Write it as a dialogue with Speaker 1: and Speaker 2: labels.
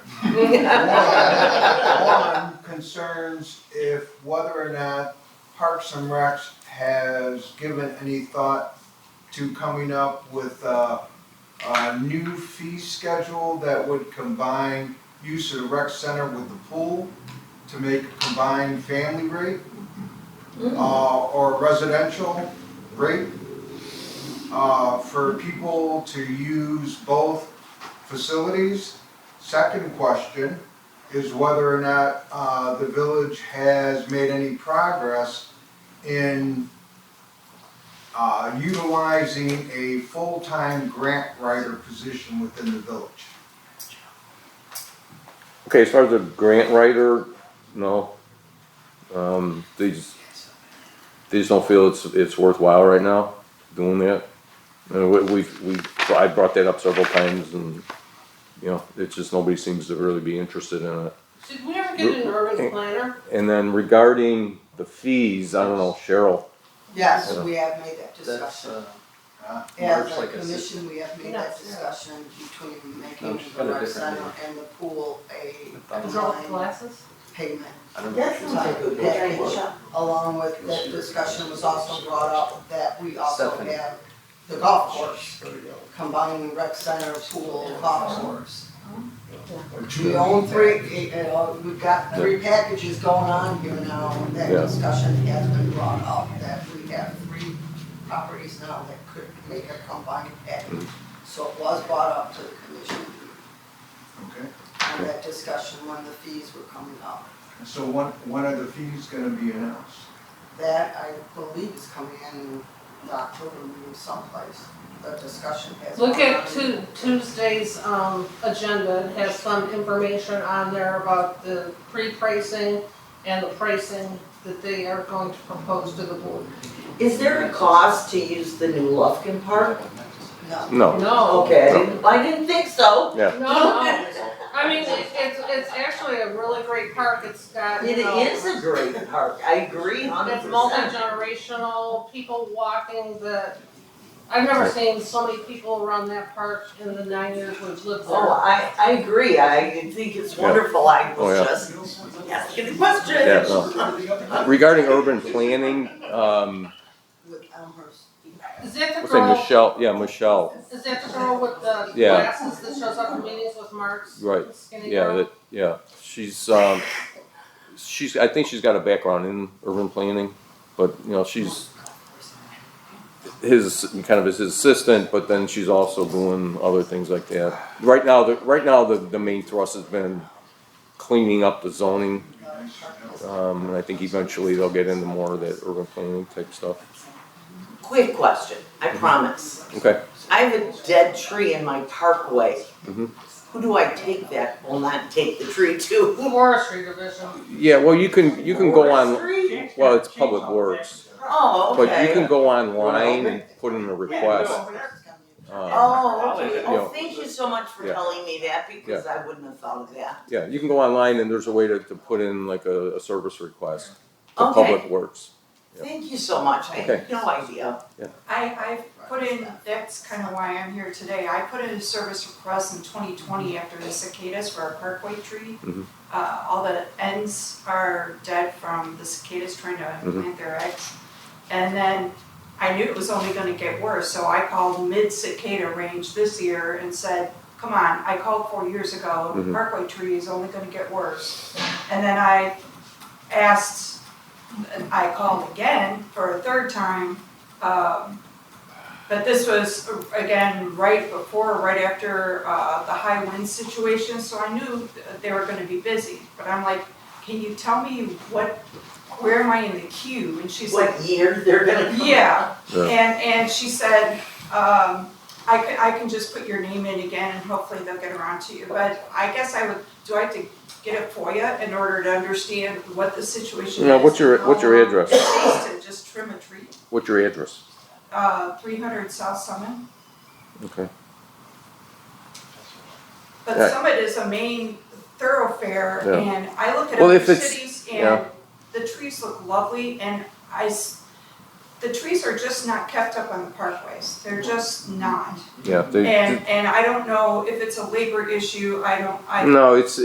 Speaker 1: One concerns if whether or not Parks and Recs has given any thought to coming up with a, a new fee schedule that would combine use of the rec center with the pool to make a combined family rate,
Speaker 2: Mm-hmm.
Speaker 1: uh, or residential rate, uh, for people to use both facilities. Second question is whether or not uh, the village has made any progress in uh, utilizing a full-time grant writer position within the village.
Speaker 3: Okay, as far as the grant writer, no. Um, they just, they just don't feel it's, it's worthwhile right now doing that. And we, we, we, I brought that up several times and, you know, it's just, nobody seems to really be interested in it.
Speaker 2: Should we ever get an urban planner?
Speaker 3: And then regarding the fees, I don't know, Cheryl,
Speaker 4: Yes,
Speaker 3: Yeah.
Speaker 4: we have made that
Speaker 5: That's,
Speaker 4: discussion.
Speaker 5: uh,
Speaker 1: Uh,
Speaker 5: Mark's
Speaker 4: As a
Speaker 5: like a sister.
Speaker 4: commission, we have made
Speaker 2: No,
Speaker 4: that
Speaker 2: it's-
Speaker 4: discussion between
Speaker 5: No,
Speaker 4: making
Speaker 5: she's
Speaker 4: the
Speaker 5: got a
Speaker 4: rec
Speaker 5: different
Speaker 4: center and the pool a
Speaker 5: I don't
Speaker 2: Girl with
Speaker 4: combined
Speaker 2: glasses?
Speaker 4: payment.
Speaker 5: I don't know.
Speaker 6: That sounds like a good
Speaker 4: Yeah.
Speaker 6: idea.
Speaker 4: Along with that discussion was also brought up that we also
Speaker 5: Stephanie.
Speaker 4: have the golf course, combining rec center, pool, golf course. We own three, eh, eh, we've got three packages going on here now, and that
Speaker 3: Yeah.
Speaker 4: discussion has been brought up, that we have three properties now that could make a combined package. So it was brought up to the commission,
Speaker 1: Okay,
Speaker 4: and that discussion when the fees were coming up.
Speaker 1: And so when, when are the fees gonna be announced?
Speaker 4: That I believe is coming in the October meeting someplace, the discussion has.
Speaker 2: Look
Speaker 4: gone
Speaker 2: at
Speaker 4: on.
Speaker 2: Tu- Tuesday's, um, agenda, it has some information on there about the pre-pricing and the pricing that they are going to propose to the board.
Speaker 6: Is there a cost to use the new Lufkin Park?
Speaker 4: No,
Speaker 3: no.
Speaker 2: No,
Speaker 6: Okay, I didn't, I didn't think so.
Speaker 2: no, no, I mean, it- it's, it's actually a really great park, it's got, you
Speaker 6: It
Speaker 2: know.
Speaker 6: is a great park, I agree hundred
Speaker 2: It's
Speaker 6: percent.
Speaker 2: multi-generational, people walking the, I've never seen so many people around that park in the nine years we've lived
Speaker 6: Oh,
Speaker 2: there.
Speaker 6: I, I agree, I think it's
Speaker 3: Yeah.
Speaker 6: wonderful, I
Speaker 3: Oh, yeah.
Speaker 6: was just asking a question.
Speaker 3: Yeah, Regarding urban planning, um,
Speaker 4: with Elmhurst.
Speaker 2: Is that the
Speaker 3: what's her name,
Speaker 2: girl,
Speaker 3: Michelle, yeah, Michelle,
Speaker 2: is that the girl with the
Speaker 3: Yeah.
Speaker 2: glasses that shows up in meetings with marks?
Speaker 3: Right.
Speaker 2: Skinny
Speaker 3: yeah,
Speaker 2: girl?
Speaker 3: that, yeah. She's, um, she's, I think she's got a background in urban planning, but, you know, she's, his kind of as his assistant, but then she's also doing other things like that. Right now, the right now the, the main thrust has been cleaning up the zoning, um, and I think eventually they'll get into more of that urban planning type stuff.
Speaker 6: Quick question, I
Speaker 3: Mm-hmm.
Speaker 6: promise.
Speaker 3: Okay,
Speaker 6: I have a dead tree in my parkway.
Speaker 3: Mhm.
Speaker 6: Who do I take that will not take the tree to?
Speaker 2: Forestry division.
Speaker 3: yeah, well, you can you can go on.
Speaker 6: Tree?
Speaker 3: Well, it's public works,
Speaker 6: Oh,
Speaker 3: but
Speaker 6: okay.
Speaker 3: you can go online and put in a request. Uh,
Speaker 6: Oh, okay,
Speaker 3: You know.
Speaker 6: oh, thank you so much for
Speaker 3: Yeah.
Speaker 6: telling me that, because I wouldn't have thought of that.
Speaker 3: yeah, you can go online and there's a way to, to put in like a, a service request to
Speaker 6: Okay.
Speaker 3: Public Works. Yeah.
Speaker 6: Thank you so much, I
Speaker 3: Okay.
Speaker 6: had no idea.
Speaker 7: I, I put in, that's kind of why I'm here today, I put in a service request in twenty twenty after the cicadas for our parkway tree.
Speaker 3: Mhm.
Speaker 7: Uh, all the ends are dead from the cicadas trying to
Speaker 3: Mhm.
Speaker 7: plant their eggs. And then I knew it was only gonna get worse, so I called mid cicada range this year and said, come on, I called four years ago, the
Speaker 3: Mhm.
Speaker 7: parkway tree is only gonna get worse. And then I asked, I called again for a third time, um, but this was, uh, again, right before, right after uh, the high wind situation, so I knew th- they were gonna be busy. But I'm like, can you tell me what, where am I in the queue? And she's like,
Speaker 6: What year they're gonna come?
Speaker 7: yeah.
Speaker 3: Yeah.
Speaker 7: And, and she said, um, I can, I can just put your name in again and hopefully they'll get around to you. But I guess I would, do I have to get a FOIA in order to understand what the situation is? Oh,
Speaker 3: Now, what's your
Speaker 7: and how
Speaker 3: what's your
Speaker 7: long
Speaker 3: address?
Speaker 7: It takes to just trim a tree,
Speaker 3: What's your address?
Speaker 7: uh, three hundred South Summit.
Speaker 3: Okay. Yeah.
Speaker 7: But Summit is a main thoroughfare
Speaker 3: Yeah.
Speaker 7: and I look at
Speaker 3: Well,
Speaker 7: other
Speaker 3: if it's-
Speaker 7: cities
Speaker 3: yeah.
Speaker 7: and the trees look lovely and I, s- the trees are just not kept up on the parkways. They're just not.
Speaker 3: Yeah. they-
Speaker 7: And, and I don't know if it's a labor issue. I don't, I
Speaker 3: no, it's